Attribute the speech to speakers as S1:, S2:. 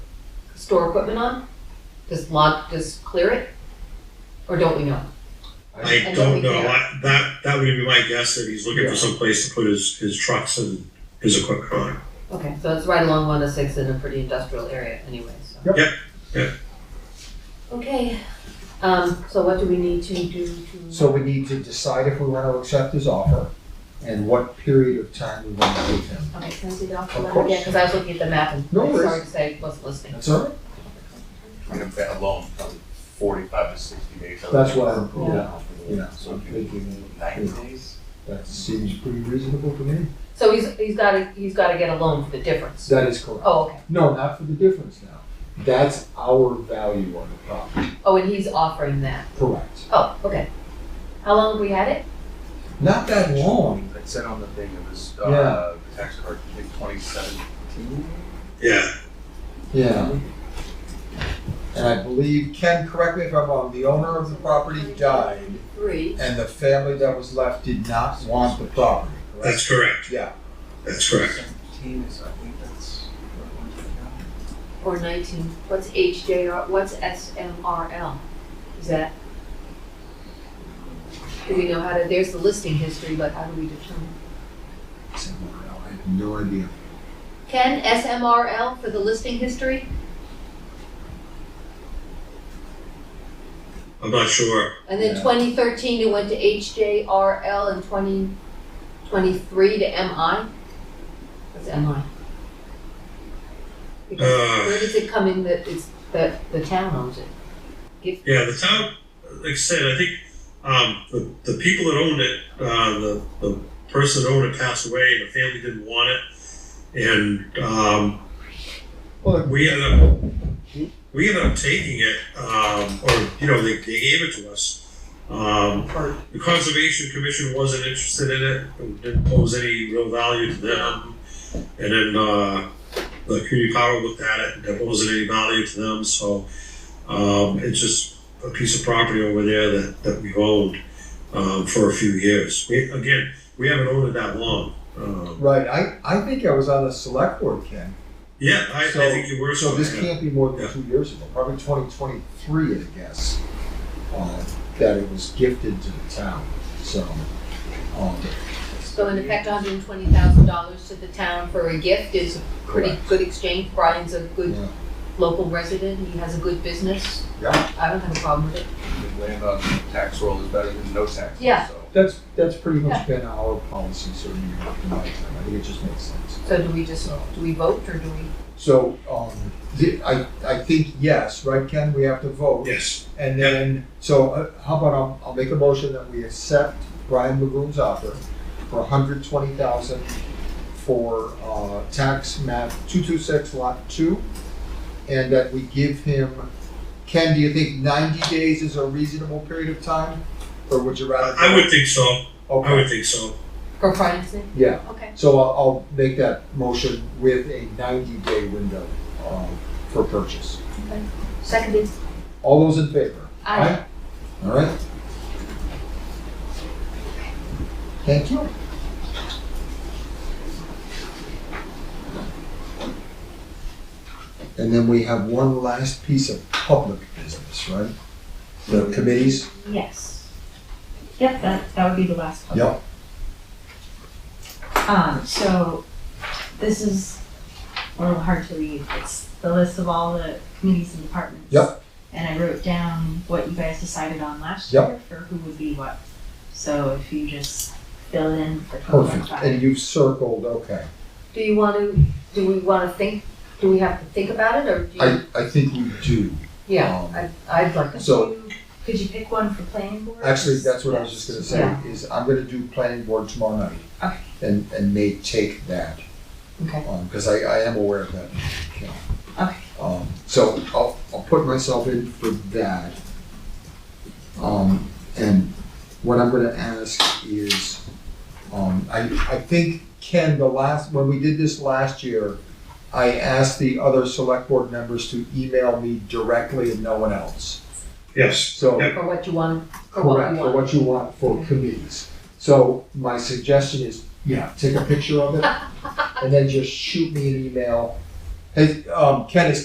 S1: store equipment on? Does Lod, does clear it? Or don't we know?
S2: I
S1: And don't
S2: don't know,
S1: we care?
S2: I, that, that would be my guess, that he's looking for some place to put his, his trucks and his equipment on.
S1: Okay, so it's right along 106 in a pretty industrial area anyway, so.
S3: Yep.
S2: Yep, yep.
S1: Okay, um, so what do we need to do to?
S3: So we need to decide if we want to accept his offer and what period of time we want to give him.
S1: Okay, can I see the
S3: Of
S1: offer letter?
S3: course.
S1: Yeah, because I was looking at the map and,
S3: No worries.
S1: sorry to say, wasn't listening.
S3: That's all right?
S4: I mean, that alone, probably forty-five to sixty days.
S3: That's why I'm-
S4: Yeah.
S3: Yeah,
S4: So
S3: I'm
S4: if you-
S3: thinking
S4: ninety days?
S3: that seems pretty reasonable to me.
S1: So he's, he's gotta, he's gotta get a loan for the difference.
S3: That is correct.
S1: Oh, okay.
S3: No, not for the difference now. That's our value on the property.
S1: Oh, and he's offering that.
S3: Correct.
S1: Oh, okay. How long have we had it?
S3: Not that long.
S4: It said on the thing, it was,
S3: Yeah.
S4: uh, tax card, I think twenty seventeen?
S2: Yeah,
S3: Yeah. And I believe, Ken, correct me if I'm wrong, the owner of the property died
S1: Three.
S3: and the family that was left did not want the property, correct?
S2: that's correct,
S3: Yeah.
S2: that's correct.
S4: Seventeen is, I think that's.
S1: Or nineteen. What's HJR, what's SMRL? Is that? Do we know how to, there's the listing history, but how do we determine?
S3: Somewhere else. I have no idea.
S1: Ken, SMRL for the listing history?
S2: I'm not sure,
S1: And then
S3: Yeah.
S1: twenty thirteen, it went to HJRL and twenty twenty-three to MI? What's MI? Because
S2: Uh.
S1: where does it come in that it's, that the town owns it?
S2: yeah, the town, like I said, I think, um, the, the people that owned it, uh, the, the person that owned it passed away, and the family didn't want it. And, um,
S3: Well,
S2: We ended up, we ended up taking it, um, or, you know, they, they gave it to us. Um,
S1: Or-
S2: the Conservation Commission wasn't interested in it, it didn't pose any real value to them. And then, uh, the community power looked at it, there wasn't any value to them, so, um, it's just a piece of property over there that, that we've owned, um, for a few years. We, again, we haven't owned it that long. Um,
S3: Right, I, I think I was on the select board, Ken.
S2: yeah, I, I
S3: So-
S2: think you were.
S3: So
S2: so-
S3: this can't be more than
S2: Yeah.
S3: two years ago, probably twenty twenty-three, I guess, uh, that it was gifted to the town, so. um,
S1: So in effect, hundred and twenty thousand dollars to the town for a gift is a pretty
S3: Correct.
S1: good exchange. Brian's a good
S3: Yeah.
S1: local resident, he has a good business.
S3: Yeah.
S1: I don't have a problem with it.
S4: Land on uh, tax roll is better than no tax. roll,
S1: Yeah.
S4: so.
S3: That's, that's pretty much been our policy, certainly in my time, I think it just makes sense.
S1: So do we just, do we vote or do we?
S3: So, um, the, I, I think yes, right, Ken, we have to vote.
S2: Yes.
S3: And then, so uh, how about I'll, I'll make a motion that we accept Brian Lagoon's offer for hundred twenty thousand for, uh, tax map two-two-six lot two. And that we give him, Ken, do you think ninety days is a reasonable period of time? Or would you rather?
S2: I would think so. I would
S3: Okay,
S2: think so.
S1: For Brian's name?
S3: yeah,
S1: Okay.
S3: so I'll, I'll make that motion with a ninety-day window, um, for purchase.
S1: Seconded.
S3: All those in favor?
S1: Aye.
S3: Aye. All right. Thank you. And then we have one last piece of public business, right? The committees?
S5: Yes. Yep, that, that would be the last one.
S3: Yep.
S5: Um, so this is a little hard to read. It's the list of all the committees and departments.
S3: Yep.
S5: And I wrote down what you guys decided on last
S3: Yep.
S5: year for who would be what. So if you just fill in for
S3: Perfect.
S5: 2025.
S3: And you've circled, okay.
S1: Do you want to, do we want to think, do we have to think about it or do you?
S3: I, I think we do. um,
S1: Yeah, I, I'd like to.
S5: Could
S3: so-
S5: you- Could you pick one for planning board?
S3: Actually, that's what I was just gonna say, is I'm gonna do planning board tomorrow night.
S5: Okay.
S3: And, and may take that.
S1: Okay.
S3: Um, cause I, I am aware of that, you know.
S5: Okay.
S3: Um, so I'll, I'll put myself in for that. Um, and what I'm gonna ask is, um, I, I think Ken, the last, when we did this last year, I asked the other select board members to email me directly and no one else.
S2: Yes.
S3: So
S2: Yep.
S1: For what you want, for what
S3: Correct,
S1: you
S3: for
S1: want.
S3: what you want for committees. So my suggestion is, yeah, take a picture of it and then just shoot me an email. Hey, um, Ken, is